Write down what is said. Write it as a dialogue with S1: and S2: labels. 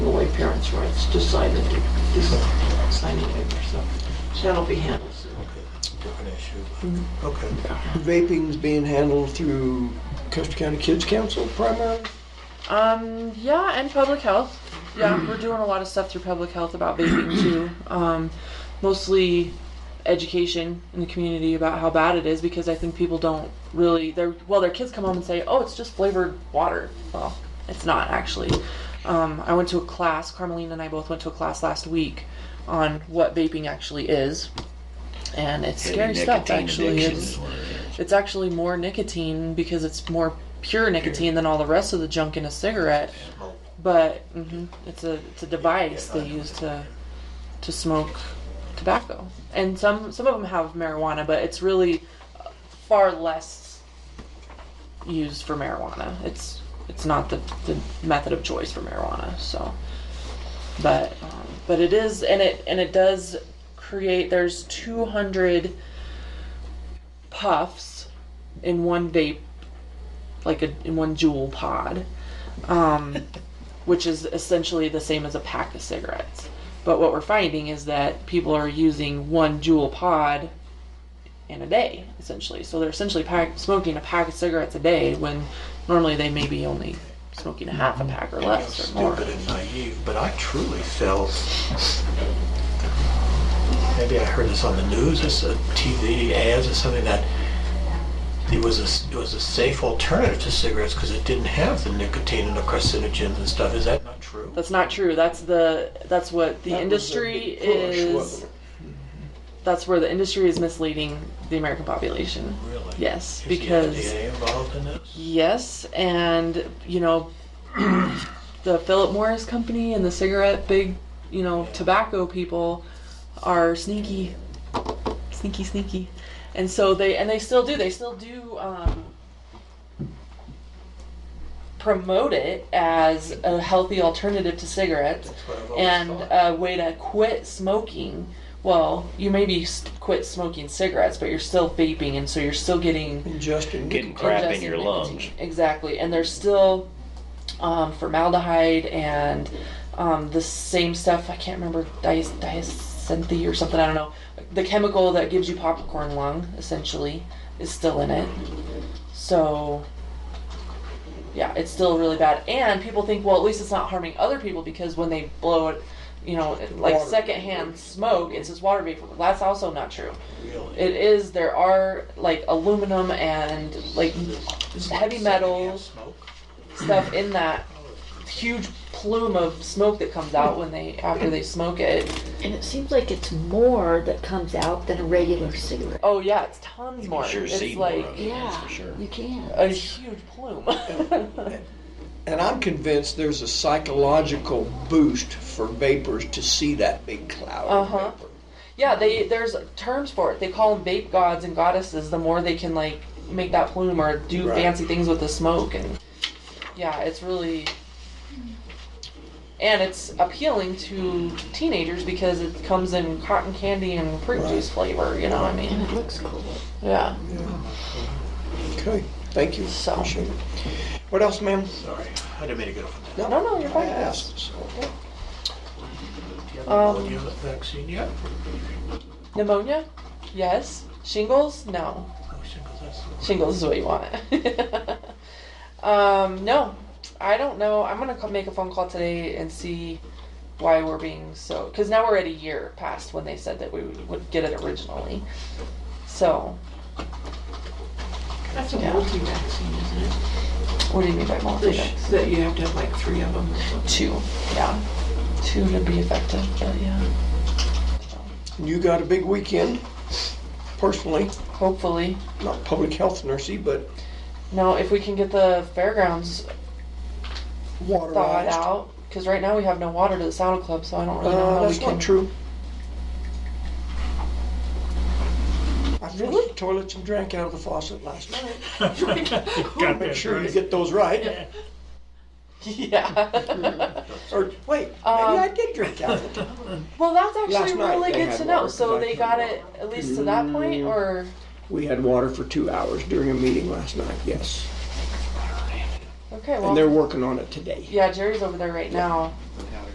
S1: That's right, it's just signing, just signing over, so that'll be handled soon.
S2: Different issue. Okay.
S3: Vaping's being handled through Custer County Kids Council primarily?
S4: Um, yeah, and public health. Yeah, we're doing a lot of stuff through public health about vaping too. Um, mostly education in the community about how bad it is because I think people don't really they're well their kids come home and say, "Oh, it's just flavored water." Well, it's not actually. Um, I went to a class, Carmelina and I both went to a class last week on what vaping actually is. And it's scary stuff
S5: Nicotine
S4: actually.
S5: addiction
S4: It's,
S5: is one of the-
S4: it's actually more nicotine because it's more pure nicotine than all the rest of the junk in a cigarette. But hmm it's a it's a device they use to to smoke tobacco, and some some of them have marijuana, but it's really far less used for marijuana. It's it's not the, the method of choice for marijuana. So, but um, but it is, and it and it does create. There's 200 puffs in one vape, like a, in one jewel pod, um, which is essentially the same as a pack of cigarettes. But what we're finding is that people are using one jewel pod in a day, essentially. So they're essentially pack, smoking a pack of cigarettes a day when normally they may be only smoking a half a pack or
S2: I'm
S4: less or more.
S2: Stupid and naive, but I truly felt, maybe I heard this on the news, it's a TV ads or something that it was a, it was a safe alternative to cigarettes because it didn't have the nicotine and the carcinogens and stuff. Is that not true?
S4: That's not true. That's the that's what the
S3: That was a
S4: industry
S3: big push,
S4: is.
S3: wasn't it?
S4: That's where the industry is misleading the American population.
S2: Really?
S4: Yes,
S2: Is
S4: because
S2: the FDA involved in this?
S4: Yes, and you know, the Philip Morris company and the cigarette big, you know, tobacco people are sneaky, sneaky, sneaky, and so they and they still do. They still do um, promote it as a healthy alternative to cigarettes
S2: That's what I've always
S4: and
S2: thought.
S4: a way to quit smoking. Well, you maybe s- quit smoking cigarettes, but you're still vaping, and so you're still getting
S3: Ingesting.
S5: Getting crap in
S4: ingesting
S5: your
S4: nicotine.
S5: lungs.
S4: Exactly, and there's still um, formaldehyde and um, the same stuff. I can't remember dis- diacinthe or something. I don't know. The chemical that gives you popcorn lung essentially is still in it. So yeah, it's still really bad. And people think, well, at least it's not harming other people because when they blow it, you know, like
S3: Water.
S4: secondhand smoke, it's just water vapor. That's also not true.
S2: Really?
S4: It is. There are like aluminum and like
S2: It's
S4: heavy
S2: like secondhand
S4: metal
S2: smoke?
S4: stuff in that huge plume of smoke that comes out when they after they smoke it.
S6: And it seems like it's more that comes out than a regular cigarette.
S4: Oh yeah, it's tons more.
S5: sure see
S4: it's
S5: more
S4: like
S5: of it.
S6: Yeah,
S5: That's for sure.
S6: you can.
S4: a huge plume.
S3: And I'm convinced there's a psychological boost for vapors to see that big cloud of
S4: Uh-huh.
S3: vapor.
S4: yeah, they there's terms for it. They call them vape gods and goddesses. The more they can like make that plume or do
S3: Right.
S4: fancy things with the smoke and yeah, it's really and it's appealing to teenagers because it comes in cotton candy and fruit
S3: Right.
S4: juice flavor. You know what I mean?
S6: And it looks cool.
S4: Yeah.
S3: Okay, thank you.
S4: So-
S3: Appreciate it. What else, ma'am?
S2: Sorry, I didn't mean to get off on that.
S4: No, no, you're
S3: I
S4: fine.
S3: asked, so.
S2: Do you have
S4: Um,
S2: the polio vaccine yet?
S4: Pneumonia? Yes. Shingles? No.
S2: No shingles, that's-
S4: Shingles is what you want. um, no, I don't know. I'm gonna co- make a phone call today and see why we're being so. Because now we're at a year past when they said that we would, would get it originally. So,
S1: That's a
S4: Yeah.
S1: multi-vaccine, isn't it?
S4: what do you mean by multi?
S1: That- That you have to have like three of them or something.
S4: Two. Yeah. Two to be effective. But yeah.
S3: You got a big weekend, personally,
S4: Hopefully.
S3: not public health nursey, but
S4: No, if we can get the fairgrounds thawed
S3: waterized.
S4: out. Because right now we have no water to the saddle club, so I don't really know
S3: Uh,
S4: how we
S3: that's
S4: can.
S3: not true. I flushed
S4: Really?
S3: the toilets and drank out of the faucet last night.
S7: Got
S3: Make
S7: that
S3: sure you
S7: right.
S3: get those right. Hmm.
S4: Yeah.
S3: Or, wait, maybe
S4: Um,
S3: I did drink out of it.
S4: Well, that's actually
S3: Last night
S4: really
S3: they
S4: good
S3: had
S4: to know.
S3: water,
S4: So
S3: but I
S4: they
S3: couldn't
S4: got
S3: remember.
S4: it at least to that point, or
S3: We had water for two hours during a meeting last night, yes.
S4: okay,
S3: And they're
S4: well,
S3: working on it today.
S4: yeah, Jerry's over there right now